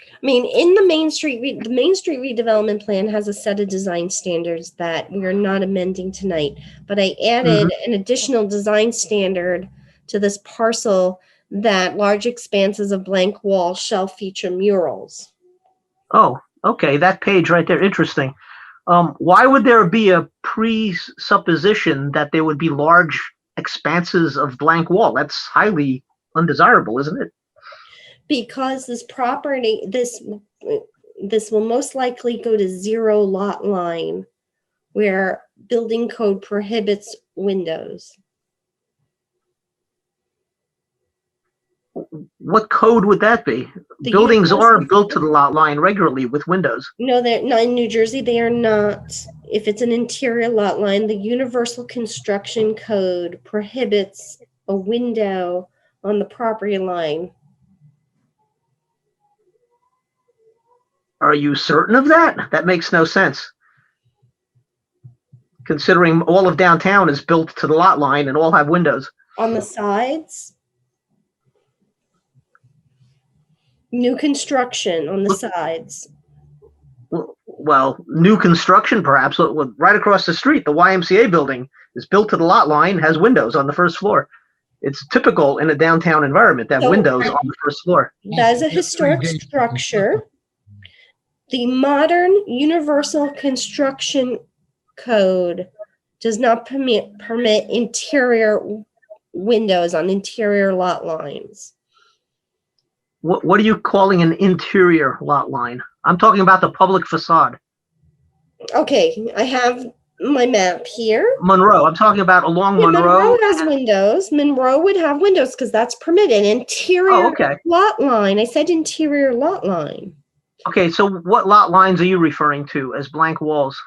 I mean, in the Main Street, re- the Main Street redevelopment plan has a set of design standards that we are not amending tonight. But I added Mm-hmm. an additional design standard to this parcel that large expanses of blank wall shall feature murals. Oh, okay, that page right there, interesting. Um, why would there be a presupposition that there would be large expanses of blank wall? That's highly undesirable, isn't it? Because this property, this, this will most likely go to zero lot line where building code prohibits windows. What code would that be? The Buildings are universal- built to the lot line regularly with windows. No, they're not in New Jersey. They are not. If it's an interior lot line, the Universal Construction Code prohibits a window on the property line. Are you certain of that? That makes no sense. Considering all of downtown is built to the lot line and all have windows. On the sides, new construction on the sides. w- well, new construction perhaps, but with- right across the street, the YMCA building is built to the lot line, has windows on the first floor. It's typical in a downtown environment to So- have windows on the first floor. That is a historic Engaged in structure. The modern Universal Construction Code does not permit, permit interior w- windows on interior lot lines. What, what are you calling an interior lot line? I'm talking about the public facade. Okay, I have my map here. Monroe, I'm talking about along Yeah, Monroe. has windows. Monroe would have windows because that's permitted. Oh, Interior okay. lot line. I said interior lot line. Okay, so what lot lines are you referring to as blank walls?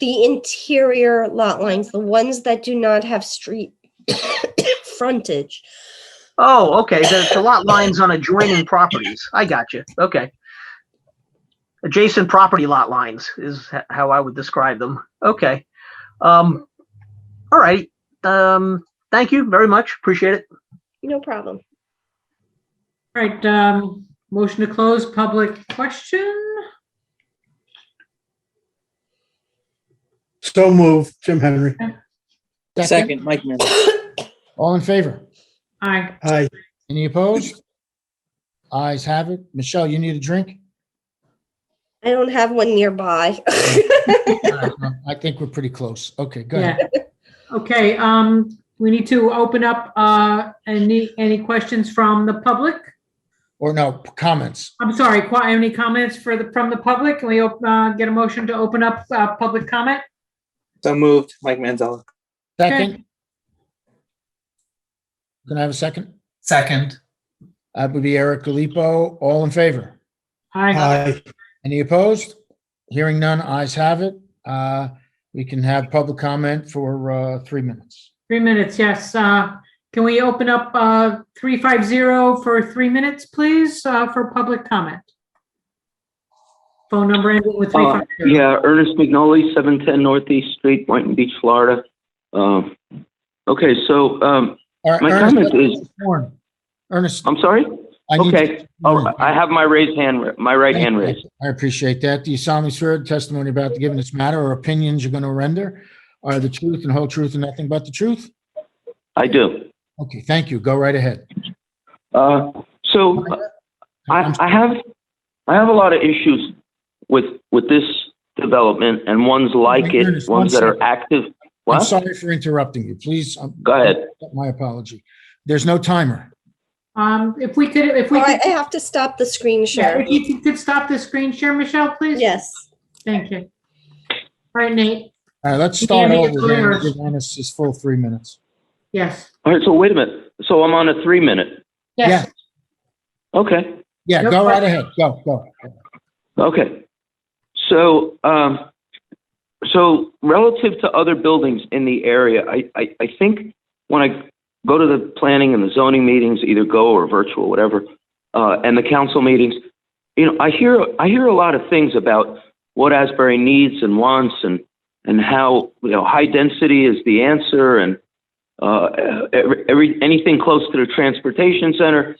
the interior lot lines, the ones that do not have street frontage. Oh, okay, the, the lot lines on adjoining properties. I got you. Okay. Adjacent property lot lines is h- how I would describe them. Okay. Um, all right. Um, thank you very much. Appreciate it. No problem. All right, um, motion to close public question? So move, Jim Henry. Second, Mike Manzella. All in favor? Aye. Aye. Any opposed? Eyes have it. Michelle, you need a drink? I don't have one nearby. I think we're pretty close. Okay, go ahead. Yeah. Okay, um, we need to open up, uh, any, any questions from the public? Or no, comments? I'm sorry, qu- any comments for the, from the public? Can we, op- uh, get a motion to open up, uh, public comment? So moved, Mike Manzella. Second? Can I have a second? Second. That would be Eric Gallipo. All in favor? Aye. Aye. Any opposed? Hearing none, eyes have it. Uh, We can have public comment for uh, three minutes. Three minutes, yes. Uh, can we open up, uh, three five zero for three minutes, please, uh, for public comment? Phone number ending with three Uh, five zero. yeah, Ernest McNolly, seven ten Northeast Street, Boynton Beach, Florida. Um, okay, so, um, All right, My Ernest, comment is- sworn. Ernest. I'm sorry? I need- Okay, oh, I have my raised hand, ra- my right hand raised. I appreciate that. Do you solemnly swear the testimony about the given this matter or opinions you're going to render are the truth and whole truth and nothing but the truth? I do. Okay, thank you. Go right ahead. Uh, so I, I have, I have a lot of issues with, with this development and ones like it, Ernest, one ones that are second. active. I'm What? sorry for interrupting you. Please, um, Go ahead. my apology. There's no timer. Um, if we could, if All we right, could, Oh, I have to stop the screen yeah, share. if you could stop the screen share, Michelle, please? Yes. Thank you. All right, Nate, All right, let's start Yeah, over it's again. and clear. Give Ernest his full three minutes. yes. All right, so wait a minute. So I'm on a three minute. Yeah, Okay. yeah, No go right problem. ahead. Go, go. Okay. So, um, so relative to other buildings in the area, I, I, I think when I go to the planning and the zoning meetings, either go or virtual, whatever, uh, and the council meetings, you know, I hear, I hear a lot of things about what Asbury needs and wants and, and how, you know, high density is the answer and, uh, every, every, anything close to the transportation center.